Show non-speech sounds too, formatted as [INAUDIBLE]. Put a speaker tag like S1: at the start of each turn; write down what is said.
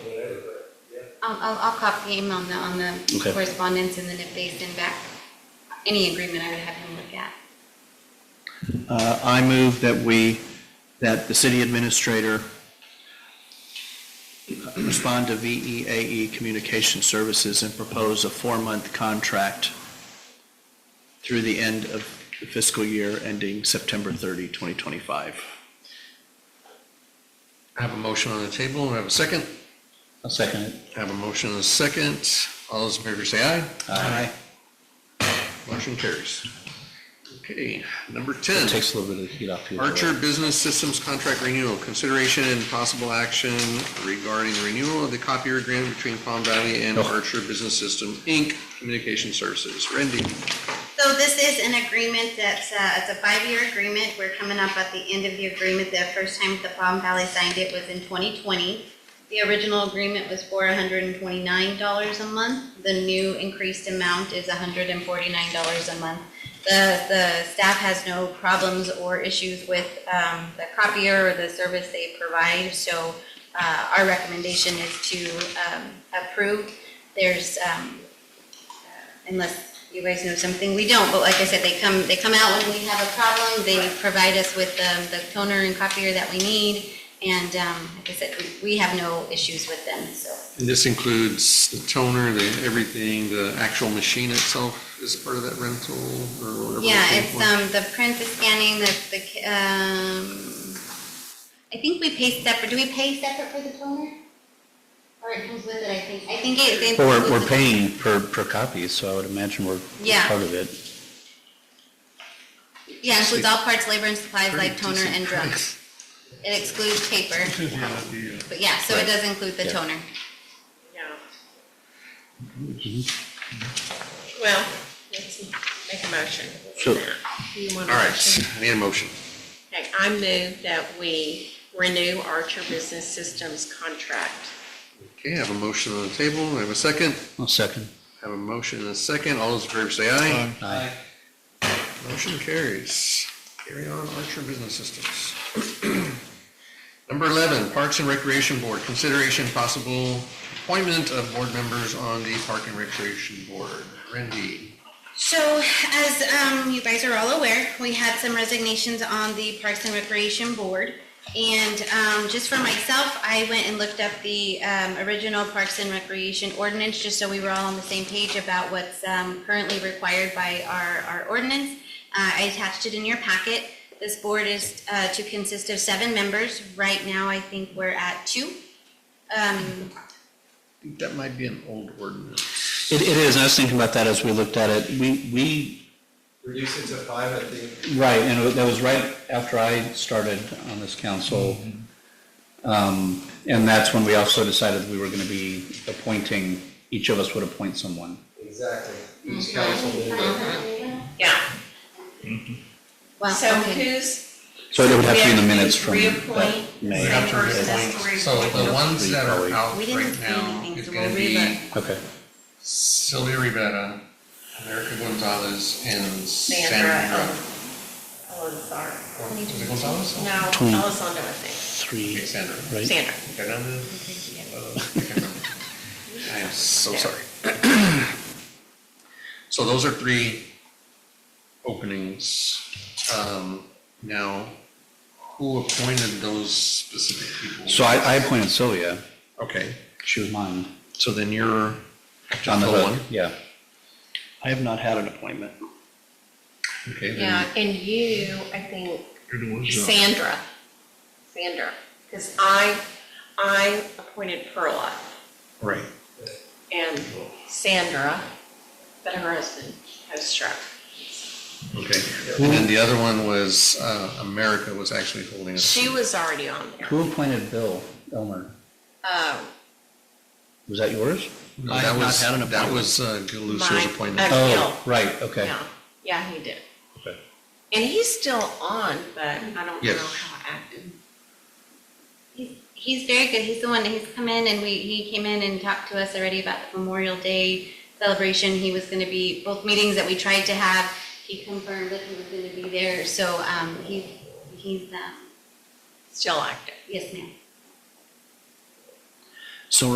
S1: I'll, I'll, I'll copy him on the, on the
S2: Okay.
S1: correspondence, and then if they send back any agreement, I would have him look at.
S2: Uh, I move that we, that the city administrator respond to VEAE E Communication Services and propose a four-month contract through the end of the fiscal year ending September 30, 2025.
S3: I have a motion on the table, and I have a second.
S4: I'll second it.
S3: I have a motion and a second. All those in favor say aye.
S2: Aye.
S3: Motion carries. Okay, number
S4: It
S3: 10,
S4: takes a little bit of the heat off you.
S3: Archer Business Systems Contract Renewal, consideration and possible action regarding the renewal of the copier agreement between Palm Valley and Archer Business System, Inc., Communication Services. Randy,
S1: So this is an agreement that's, uh, it's a five-year agreement. We're coming up at the end of the agreement. The first time the Palm Valley signed it was in 2020. The original agreement was for $129 a month. The new increased amount is $149 a month. The, the staff has no problems or issues with um, the copier or the service they provide. So uh, our recommendation is to um, approve. There's um, unless you guys know something we don't, but like I said, they come, they come out when we have a problem, they provide us with um, the toner and copier that we need, and um, like I said, we- we have no issues with them, so.
S3: this includes the toner, the everything, the actual machine itself is part of that rental or whatever.
S1: Yeah,
S3: we're paying
S1: it's
S3: for?
S1: um, the print, the scanning, the, the, um, I think we pay separate, do we pay separate for the toner? Or it comes with it, I think, I think it. it-
S4: Well, we're, we're paying per, per copy, so I would imagine we're
S1: Yeah.
S4: part of it.
S1: Yeah, includes all parts, labor and supplies,
S3: Pretty
S1: like toner
S3: decent
S1: and drugs.
S3: price.
S1: It excludes paper, but yeah, so it does include the
S4: Yeah.
S1: toner.
S5: Yeah. Well, let's make a motion.
S4: Sure.
S5: Do you want a
S3: All
S5: motion?
S3: right, I need a motion.
S5: Okay, I move that we renew Archer Business Systems contract.
S3: Okay, I have a motion on the table, I have a second,
S4: I'll second.
S3: I have a motion and a second, all those in favor say aye.
S4: Aye.
S3: Motion carries. Carry on, Archer Business Systems. [CLEARS THROAT] Number 11, Parks and Recreation Board, consideration possible appointment of board members on the Park and Recreation Board. Randy,
S1: So as um, you guys are all aware, we had some resignations on the Parks and Recreation Board. And um, just for myself, I went and looked up the um, original Parks and Recreation ordinance, just so we were all on the same page about what's um, currently required by our, our ordinance. Uh, I attached it in your packet. This board is uh, to consist of seven members. Right now, I think we're at two. Um,
S3: I think that might be an old ordinance.
S4: It, it is, and I was thinking about that as we looked at it. We, we,
S6: reduce it to five, I think.
S4: right, and it- that was right after I started on this council. Um, and that's when we also decided we were gonna be appointing, each of us would appoint someone.
S6: Exactly. Each council member.
S5: Yeah.
S1: Well,
S5: So
S1: okay.
S5: who's?
S4: So it would have to be in the minutes from that
S5: Reappoint.
S4: May.
S3: We have to
S5: First, that's
S3: reappoint.
S5: where we-
S3: So the ones that are out
S1: We didn't
S3: right
S1: say
S3: now
S1: anything,
S3: is
S1: so
S3: going
S1: we'll
S3: to be
S1: relook.
S4: Okay.
S3: Sylvia Rivera, America Gonzalez, and Sandra.
S5: Sandra
S3: Rivera.
S5: Elizondo.
S3: Was it Gonzalez?
S5: No,
S4: Twenty.
S5: Elizondo, I think.
S4: Three,
S3: Okay, Sandra.
S4: right?
S5: Sandra.
S3: Fernandez? Uh, I can't remember. I am so
S5: Yeah.
S3: sorry. [CLEARS THROAT] So those are three openings. Um, Now, who appointed those specific people?
S4: So I, I appointed Sylvia.
S3: Okay,
S4: She was mine.
S3: so then you're
S4: On
S3: just
S4: the
S3: the
S4: hook,
S3: one.
S4: yeah.
S2: I have not had an appointment.
S3: Okay,
S5: Yeah,
S3: then
S5: and you, I think,
S3: you're the one.
S5: Sandra. Sandra, because I, I appointed Perla
S3: Right.
S5: and Sandra, but her husband has struck.
S3: Okay. And then the other one was, uh, America was actually holding us.
S5: She was already on there.
S4: Who appointed Bill Elmer?
S5: Oh,
S4: Was that yours?
S3: No,
S2: I
S3: that
S2: have not
S3: was-
S2: had an
S3: That was uh, Galuso's
S5: Mine.
S3: appointment.
S5: Uh, Bill.
S4: Oh, right, okay.
S5: yeah, yeah, he did.
S4: Okay.
S5: And he's still on, but I don't know
S3: Yes.
S5: how active.
S1: He's- He's very good. He's the one, he's come in and we, he came in and talked to us already about the Memorial Day celebration. He was going to be, both meetings that we tried to have, he confirmed that he was going to be there. So um, he, he's, um,
S5: Still active.
S1: yes, ma'am.